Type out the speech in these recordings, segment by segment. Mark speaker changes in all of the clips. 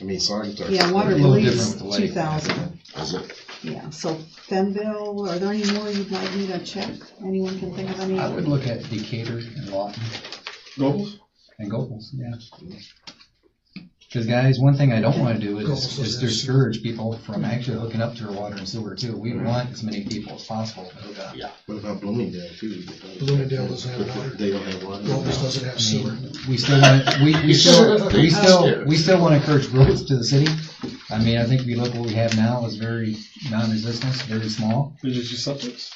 Speaker 1: I mean, Sargent are.
Speaker 2: Yeah,
Speaker 3: little
Speaker 2: Waterloo's
Speaker 3: different with
Speaker 2: two
Speaker 3: Lake, I
Speaker 2: thousand,
Speaker 1: Is it?
Speaker 2: yeah, so Fennville, are there any more you'd like me to check? Anyone can think of any?
Speaker 3: I would look at Decatur and Lawton
Speaker 1: Nobles?
Speaker 3: and Gobles, yeah. Because guys, one thing I don't want to do is,
Speaker 4: Gobles
Speaker 3: is
Speaker 4: is-
Speaker 3: discourage people from actually hooking up to our water and sewer too. We want as many people as possible to hook up.
Speaker 1: What about Bloomingdale too?
Speaker 4: Bloomingdale doesn't have water.
Speaker 1: They don't have water.
Speaker 4: Columbus doesn't have
Speaker 3: I mean,
Speaker 4: sewer.
Speaker 3: We still want, we, we still, we still, we still want to encourage growth to the city. I mean, I think we look what we have now is very non-resistant, very small,
Speaker 5: Did you see septics?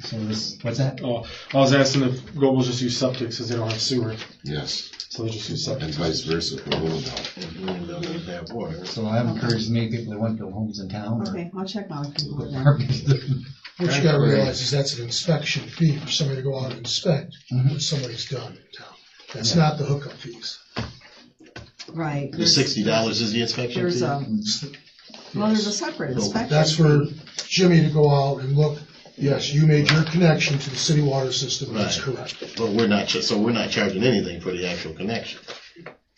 Speaker 3: so this, what's that?
Speaker 5: Oh, I was asking if Gobles just use septic since they don't have sewer,
Speaker 6: Yes,
Speaker 5: so they just use
Speaker 6: and
Speaker 5: septic.
Speaker 6: vice versa for Bloomingdale.
Speaker 1: And Bloomingdale doesn't have water.
Speaker 3: So I've encouraged as many people that want their homes in town or.
Speaker 2: Okay, I'll check on it.
Speaker 3: put apartments in.
Speaker 4: What you gotta realize is that's an inspection fee for somebody to go out and inspect
Speaker 3: Mhm.
Speaker 4: what somebody's done in town. That's not the hookup fees.
Speaker 2: Right.
Speaker 1: The
Speaker 2: there's-
Speaker 1: sixty dollars is the inspection fee?
Speaker 2: There's a,
Speaker 4: It's the-
Speaker 2: well, there's a separate inspection.
Speaker 4: That's for Jimmy to go out and look, yes, you made your connection to the city water system, that's
Speaker 1: Right.
Speaker 4: correct.
Speaker 1: But we're not, cha- so we're not charging anything for the actual connection.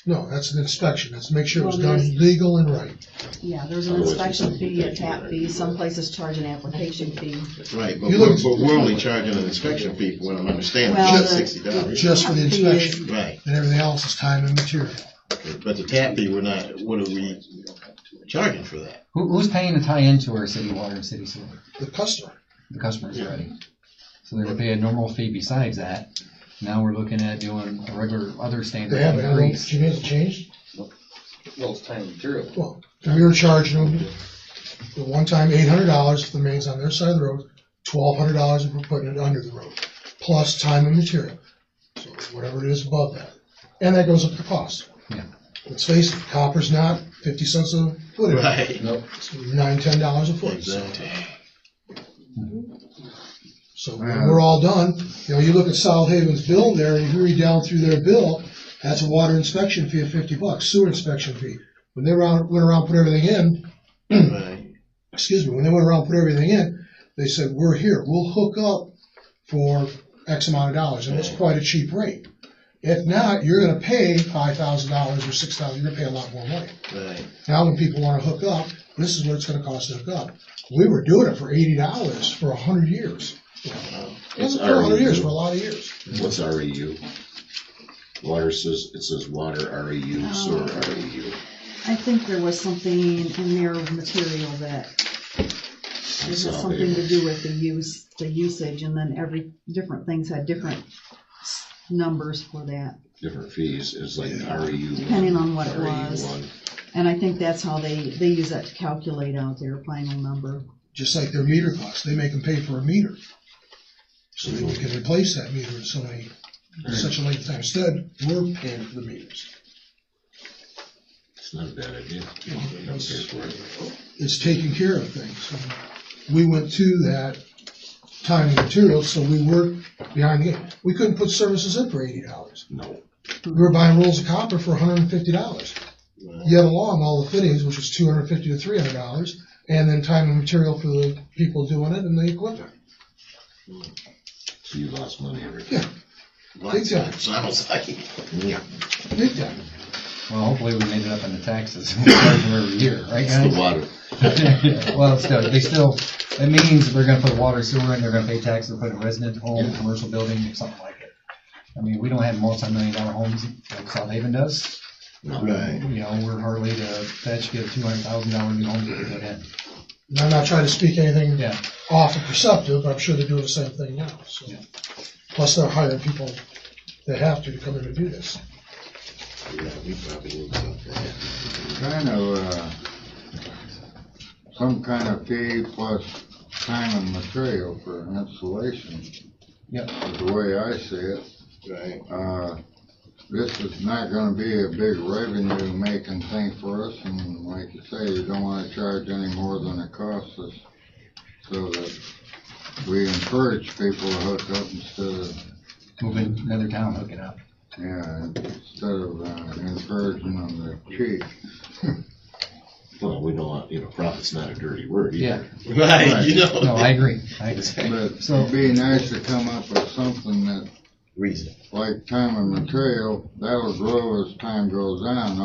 Speaker 4: No, that's an inspection, that's to make sure it was
Speaker 2: Well,
Speaker 4: done
Speaker 2: there's-
Speaker 4: legal and right.
Speaker 2: Yeah, there's an inspection fee, a tap fee, some places charge an application fee.
Speaker 1: Right, but
Speaker 4: You
Speaker 1: we're,
Speaker 4: look-
Speaker 1: but we're only charging an inspection fee, from what I'm understanding,
Speaker 2: Well,
Speaker 1: just
Speaker 2: the-
Speaker 1: sixty dollars.
Speaker 4: Just for the
Speaker 2: Tap fee is-
Speaker 4: inspection.
Speaker 1: Right,
Speaker 4: And everything else is time and material.
Speaker 1: but the tap fee, we're not, what are we charging for that?
Speaker 3: Who, who's paying to tie into our city water and city sewer?
Speaker 4: The customer,
Speaker 3: The customers
Speaker 1: Yeah.
Speaker 3: already. So they're gonna pay a normal fee besides that. Now we're looking at doing a regular other standard
Speaker 4: they haven't, I don't-
Speaker 3: increase.
Speaker 4: Jimmy has it changed?
Speaker 7: Well, it's time and material.
Speaker 4: Well, we were charging them the one time eight hundred dollars if the main's on their side of the road, twelve hundred dollars if we're putting it under the road, plus time and material. So whatever it is above that. And that goes up the cost.
Speaker 3: Yeah.
Speaker 4: Let's face it, copper's not fifty cents a foot. anymore.
Speaker 1: Right.
Speaker 4: It's nine, ten dollars a foot. So-
Speaker 1: Exactly.
Speaker 4: So when we're all done, you know, you look at South Haven's bill there and you read down through their bill, that's a water inspection fee of fifty bucks, sewer inspection fee. When they were out- went around, put everything in,
Speaker 1: Right,
Speaker 4: excuse me, when they went around and put everything in, they said, we're here, we'll hook up for X amount of dollars, and it's quite a cheap rate. If not, you're gonna pay five thousand dollars or six thousand, you're gonna pay a lot more money.
Speaker 1: right.
Speaker 4: Now, when people wanna hook up, this is what it's gonna cost to hook up. We were doing it for eighty dollars for a hundred years. It
Speaker 6: It's
Speaker 4: wasn't for a hundred years, for a
Speaker 6: REU.
Speaker 4: lot of years.
Speaker 6: What's REU? Water says, it says water
Speaker 2: Oh.
Speaker 6: REU, sewer REU.
Speaker 2: I think there was something in their material that, it had something to do with the use, the usage, and then every, different things had different s- numbers for that.
Speaker 6: Different fees, it's like REU. one,
Speaker 2: Depending on what it was.
Speaker 6: REU one.
Speaker 2: And I think that's how they, they use that to calculate out their final number.
Speaker 4: Just like their meter costs, they make them pay for a meter. So they can replace that meter in so many, such a length of time. Instead, we're paying for the meters.
Speaker 6: It's not a bad idea. Don't pay
Speaker 4: It's
Speaker 6: for it.
Speaker 4: it's taking care of things. And We went to that time and material, so we were behind the game. We couldn't put services in for eighty dollars.
Speaker 6: No.
Speaker 4: We were buying rolls of copper for hundred and fifty dollars. Yet along all the fittings, which was two hundred and fifty to three hundred dollars, and then time and material for the people doing it and the equipment.
Speaker 6: So you lost money every time.
Speaker 4: Yeah. Big time.
Speaker 1: Sounds like, it. yeah.
Speaker 4: Big time.
Speaker 3: Well, hopefully we made it up in the taxes. We're charging every year, right
Speaker 6: It's the
Speaker 3: guys?
Speaker 6: water.
Speaker 3: Well, still, they still, it means they're gonna put water, sewer, and they're gonna pay taxes, put a resident home, commercial building, or something like it. I mean, we don't have multi-million dollar homes like South Haven does.
Speaker 1: Right.
Speaker 3: You know, we're hardly to fetch, get a two hundred thousand dollar new home to put in.
Speaker 4: And I'm not trying to speak anything
Speaker 3: Yeah,
Speaker 4: off of perceptive, but I'm sure they're doing the same thing now, so.
Speaker 3: Yeah.
Speaker 4: Plus they're hiring people that have to to come in and do this.
Speaker 1: Yeah, we probably need something.
Speaker 8: kind of, uh, some kind of fee plus time and material for installation.
Speaker 3: Yep.
Speaker 8: Is the way I see it.
Speaker 1: Right,
Speaker 8: Uh, this is not gonna be a big revenue making thing for us, and like you say, you don't wanna charge any more than it costs us. So that we encourage people to hook up instead of,
Speaker 3: moving another town, hook it up.
Speaker 8: yeah, instead of uh, encouraging them to cheat.
Speaker 6: Well, we don't want, you know, profit's not a dirty word
Speaker 3: Yeah,
Speaker 6: either.
Speaker 1: right, you
Speaker 3: no,
Speaker 1: know.
Speaker 3: I agree, I agree.
Speaker 8: But
Speaker 3: So-
Speaker 8: it'd be nice to come up with something that
Speaker 1: Reason.
Speaker 8: like time and material, that'll grow as time goes on.